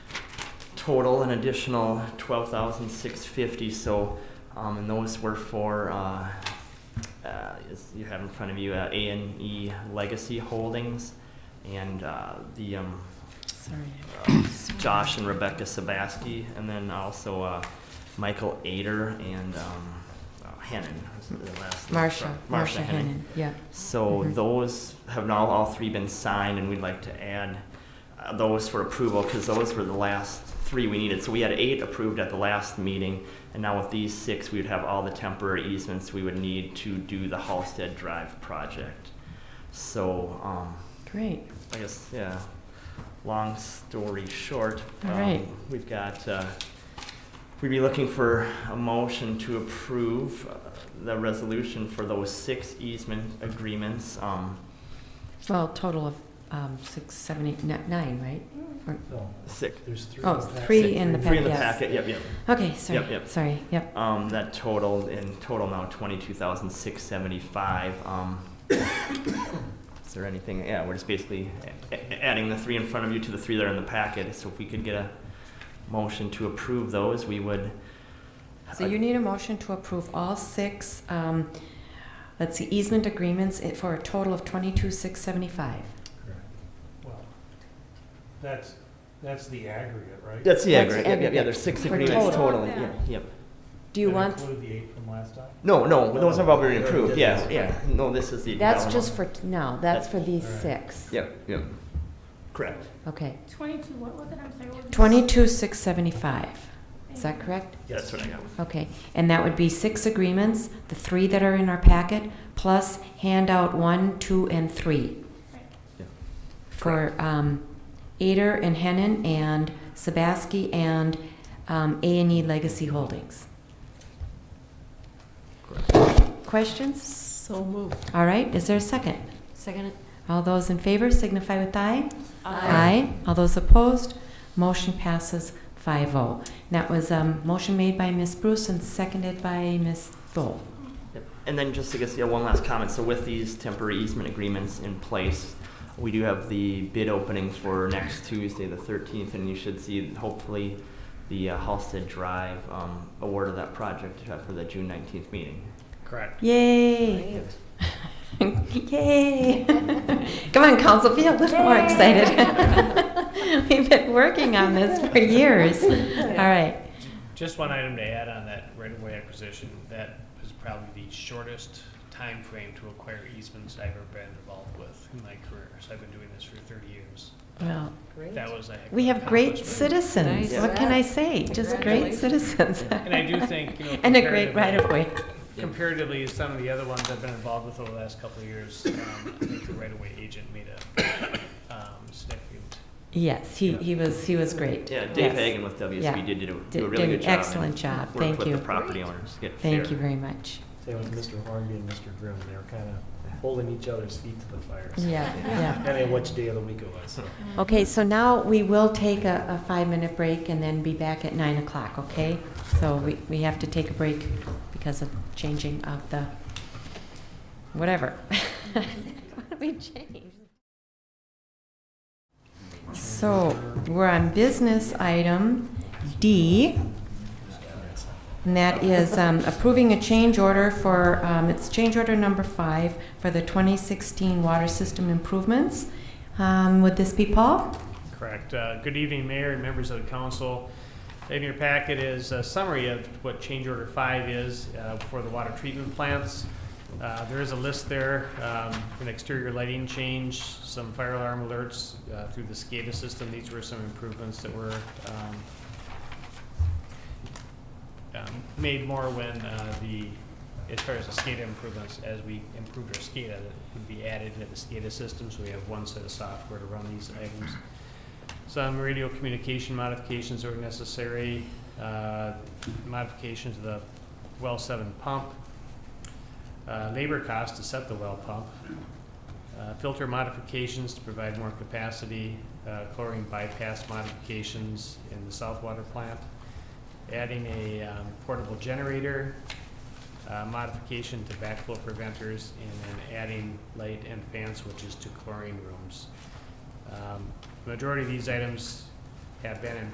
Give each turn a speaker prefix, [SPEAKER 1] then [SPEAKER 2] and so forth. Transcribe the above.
[SPEAKER 1] total an additional twelve thousand six fifty, so, um, and those were for, uh, uh, is, you have in front of you, uh, A and E Legacy Holdings, and, uh, the, um,
[SPEAKER 2] Sorry.
[SPEAKER 1] uh, Josh and Rebecca Sabaski, and then also, uh, Michael Ader and, um, uh, Hennon, was the last name.
[SPEAKER 2] Marcia,
[SPEAKER 1] Marcia
[SPEAKER 2] Marcia
[SPEAKER 1] Hennon.
[SPEAKER 2] Hennon, yeah.
[SPEAKER 1] So
[SPEAKER 2] Mhm.
[SPEAKER 1] those have now all three been signed, and we'd like to add uh, those for approval, because those were the last three we needed. So we had eight approved at the last meeting, and now with these six, we would have all the temporary easements we would need to do the Halsted Drive project. So, um,
[SPEAKER 2] Great.
[SPEAKER 1] I guess, yeah, long story short.
[SPEAKER 2] All
[SPEAKER 1] um,
[SPEAKER 2] right.
[SPEAKER 1] We've got, uh, we'd be looking for a motion to approve uh, the resolution for those six easement agreements. um,
[SPEAKER 2] Well, total of um, six, seven, eight, ni- nine, right?
[SPEAKER 3] No,
[SPEAKER 1] Six.
[SPEAKER 3] there's three.
[SPEAKER 2] Oh,
[SPEAKER 3] in the pack.
[SPEAKER 2] three in the
[SPEAKER 1] Three in
[SPEAKER 2] packet,
[SPEAKER 1] the
[SPEAKER 2] yes.
[SPEAKER 1] packet, yep, yep.
[SPEAKER 2] Okay, sorry,
[SPEAKER 1] Yep, yep.
[SPEAKER 2] sorry, yep.
[SPEAKER 1] Um, that totaled, in total now, twenty-two thousand six seventy-five. Um, is there anything, yeah, we're just basically a- a- adding the three in front of you to the three that are in the packet. So if we could get a motion to approve those, we would.
[SPEAKER 2] So you need a motion to approve all six, um, let's see, easement agreements i- for a total of twenty-two, six seventy-five.
[SPEAKER 3] Correct. Well, That's, that's the aggregate, right?
[SPEAKER 1] uh, That's, yeah,
[SPEAKER 2] That's
[SPEAKER 1] right, yeah, yeah, yeah, there's six
[SPEAKER 2] for
[SPEAKER 1] agreements
[SPEAKER 2] total.
[SPEAKER 1] totally, yeah, yeah.
[SPEAKER 2] Do you
[SPEAKER 3] That
[SPEAKER 2] want,
[SPEAKER 3] include the eight from last time?
[SPEAKER 1] No, no, those have all been
[SPEAKER 3] No,
[SPEAKER 1] approved,
[SPEAKER 3] yeah,
[SPEAKER 1] yeah, yeah, no, this is the.
[SPEAKER 2] that's
[SPEAKER 1] no,
[SPEAKER 2] just for, t- no, that's for these
[SPEAKER 3] Alright.
[SPEAKER 2] six.
[SPEAKER 1] no. Yeah, yeah. Correct.
[SPEAKER 2] Okay,
[SPEAKER 4] 22, what was it? I'm sorry. what was it?
[SPEAKER 2] twenty-two, six seventy-five, is that correct?
[SPEAKER 1] That's what I got.
[SPEAKER 2] Okay, and that would be six agreements, the three that are in our packet, plus handout one, two, and three.
[SPEAKER 4] Right.
[SPEAKER 1] Yeah.
[SPEAKER 2] For um, Ader and Hennon and Sabaski and um, A&E Legacy Holdings. Questions? So moved. All right, is there a second?
[SPEAKER 5] Second.
[SPEAKER 2] All those in favor signify with aye.
[SPEAKER 5] Aye.
[SPEAKER 2] All those opposed, motion passes 5-0. That was a motion made by Ms. Bruce and seconded by Ms. Dole.
[SPEAKER 4] Uh-huh.
[SPEAKER 1] Yep. And then just, I guess, yeah, one last comment. So with these temporary easement agreements in place, we do have the bid opening for next Tuesday, the thirteenth, and you should see hopefully the uh, Halsted Drive, um, award of that project uh, for the June nineteenth meeting.
[SPEAKER 3] Correct.
[SPEAKER 2] Yay! Yay! Come on, council, be a little more excited. We've been working on this for years. All right.
[SPEAKER 6] Just one item to add on that right-of-way acquisition, that is probably the shortest time frame to acquire easements I've ever been involved with in my career. So I've been doing this for thirty years.
[SPEAKER 2] Well,
[SPEAKER 6] That was a heck of
[SPEAKER 2] we
[SPEAKER 6] an
[SPEAKER 2] have great
[SPEAKER 6] accomplishment.
[SPEAKER 2] citizens. What can I say? Just great citizens.
[SPEAKER 6] And I do think, you know.
[SPEAKER 2] And a great
[SPEAKER 6] comparatively-
[SPEAKER 2] right-of-way.
[SPEAKER 6] Comparatively, to some of the other ones I've been involved with over the last couple of years, um, I think the right-of-way agent made a, um, significant
[SPEAKER 2] Yes, he, he was, he was great.
[SPEAKER 1] Yeah, Dave
[SPEAKER 2] Yes.
[SPEAKER 1] Hagan with
[SPEAKER 2] Yeah.
[SPEAKER 1] WSB did do a-
[SPEAKER 2] Did
[SPEAKER 1] do a
[SPEAKER 2] did
[SPEAKER 1] really
[SPEAKER 2] an
[SPEAKER 1] good job. and
[SPEAKER 2] Excellent job,
[SPEAKER 1] worked
[SPEAKER 2] thank
[SPEAKER 1] with
[SPEAKER 2] you.
[SPEAKER 1] the property owners, to get
[SPEAKER 2] Thank
[SPEAKER 1] fair-
[SPEAKER 2] you very much.
[SPEAKER 3] It was Mr. Hornby and Mr. Grimm, they were kind of holding each other's feet to the fire. so-
[SPEAKER 2] Yeah, yeah.
[SPEAKER 3] Depending on which day of the week it was, so.
[SPEAKER 2] Okay, so now we will take a, a five-minute break and then be back at nine o'clock, okay? So we, we have to take a break because of changing of the, whatever. What we changed? So, we're on business item D. And that is um, approving a change order for, um, it's change order number five for the 2016 water system improvements. Um, Would this be Paul?
[SPEAKER 6] Correct. Uh, Good evening, Mayor and members of the council. In your packet is a summary of what change order five is uh, for the water treatment plants. Uh, There is a list there, um, an exterior lighting change, some fire alarm alerts uh, through the SCADA system. These were some improvements that were um, um, made more when uh, the, as far as the SCADA improvements, as we improved our SCADA, that would be added into the SCADA system, so we have one set of software to run these items. Some radio communication modifications that were necessary, uh, modification to the well seven pump, uh, labor cost to set the well pump, uh, filter modifications to provide more capacity, uh, chlorine bypass modifications in the south water plant, adding a um, portable generator, uh, modification to backflow preventers, and then adding light and fan switches to chlorine rooms. Um, Majority of these items have been in